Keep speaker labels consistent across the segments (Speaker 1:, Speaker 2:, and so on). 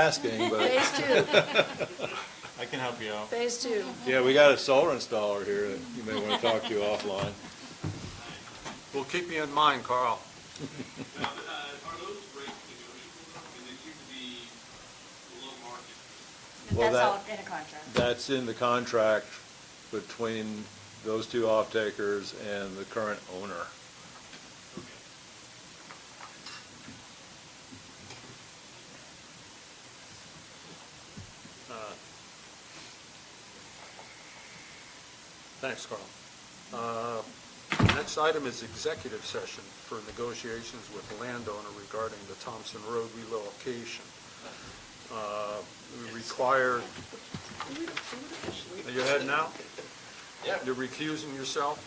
Speaker 1: asking, but,
Speaker 2: Phase two,
Speaker 3: I can help you out.
Speaker 2: phase two.
Speaker 1: yeah, we got a solar installer here that you may want to talk to offline.
Speaker 3: Well, keep me in mind, Carl.
Speaker 4: Now, uh, are those rates negotiable? Because they seem to be below market.
Speaker 1: Well,
Speaker 5: That's all
Speaker 1: that-
Speaker 5: in a contract.
Speaker 1: That's in the contract between those two off-takers and the current owner.
Speaker 3: Thanks, Carl. Uh, Next item is executive session for negotiations with landowner regarding the Thompson Road relocation. Uh, We require, are you heading out?
Speaker 6: Yeah.
Speaker 3: You're recusing yourself?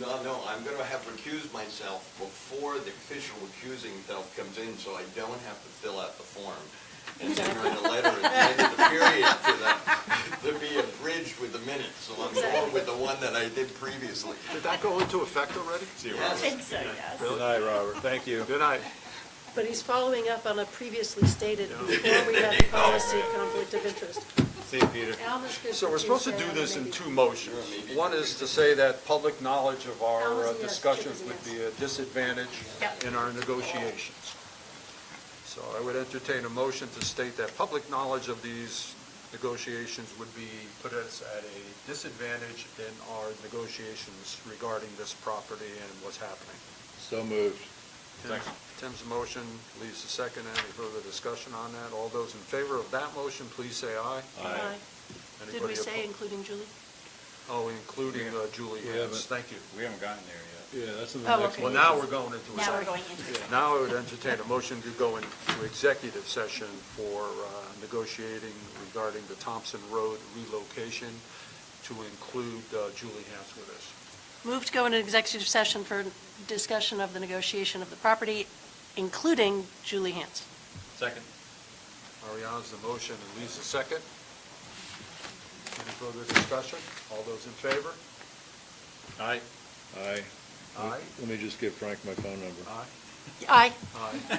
Speaker 6: No, no, I'm gonna have recused myself before the official recusing self comes in, so I don't have to fill out the form. And then write a letter at the end of the period to the, to be abridged with the minutes, so I'm going with the one that I did previously.
Speaker 3: Did that go into effect already?
Speaker 5: I think so, yes.
Speaker 1: Good night, Robert, thank you.
Speaker 3: Good night.
Speaker 2: But he's following up on a previously stated, before we had policy conflict of interest.
Speaker 1: See you, Peter.
Speaker 2: Alma's good
Speaker 3: So we're supposed to do this in two motions. One is to say that public knowledge of our uh, discussions would be a disadvantage
Speaker 5: Yep.
Speaker 3: in our negotiations. So I would entertain a motion to state that public knowledge of these negotiations would be, put us at a disadvantage in our negotiations regarding this property and what's happening.
Speaker 1: So moved.
Speaker 3: Tim's- Tim's motion leaves a second. Any further discussion on that? All those in favor of that motion, please say aye.
Speaker 2: Aye. Did we
Speaker 3: Anybody
Speaker 2: say
Speaker 3: opposed?
Speaker 2: including Julie?
Speaker 3: Oh, including uh, Julie
Speaker 1: Yeah,
Speaker 3: Hans,
Speaker 1: but-
Speaker 3: thank you.
Speaker 7: We haven't gotten there
Speaker 1: Yeah, that's in the
Speaker 2: Oh,
Speaker 1: next
Speaker 2: okay.
Speaker 3: Well,
Speaker 1: one.
Speaker 3: now we're going into.
Speaker 5: Now we're
Speaker 3: executive.
Speaker 5: going into it.
Speaker 3: Now I would entertain a motion to go into executive session for uh, negotiating regarding the Thompson Road relocation to include uh, Julie Hans with us.
Speaker 2: Move to go into executive session for discussion of the negotiation of the property, including Julie Hans.
Speaker 7: Second.
Speaker 3: Ariana's the motion and Lee's the second. Any further discussion? All those in favor?
Speaker 7: Aye.
Speaker 1: Aye.
Speaker 3: Aye.
Speaker 1: Let me just give Frank my phone number.
Speaker 3: Aye.
Speaker 2: Aye.
Speaker 3: Aye.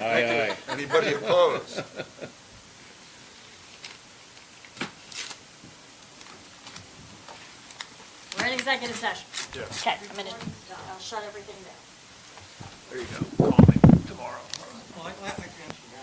Speaker 1: Aye, aye.
Speaker 3: Anybody opposed?
Speaker 5: We're in executive session.
Speaker 3: Yes.
Speaker 5: Okay, minute. I'll shut everything down.
Speaker 3: There you go. Call me tomorrow.
Speaker 6: Well, I can answer now.